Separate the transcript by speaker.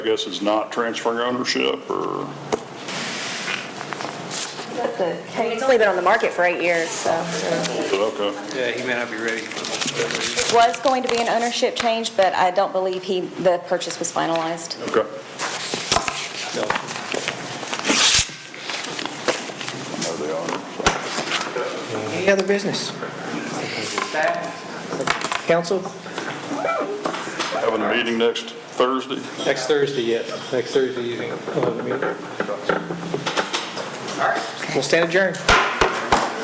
Speaker 1: I guess it's not transferring ownership or,
Speaker 2: It's only been on the market for eight years, so.
Speaker 1: okay.
Speaker 3: Yeah, he may not be ready.
Speaker 2: It was going to be an ownership change, but I don't believe he, the purchase was finalized.
Speaker 1: Okay.
Speaker 3: No.
Speaker 1: I know they are.
Speaker 4: Any other business? Council,
Speaker 1: Having a meeting next Thursday?
Speaker 3: Next Thursday, yes, next Thursday evening.
Speaker 4: we'll stand adjourned.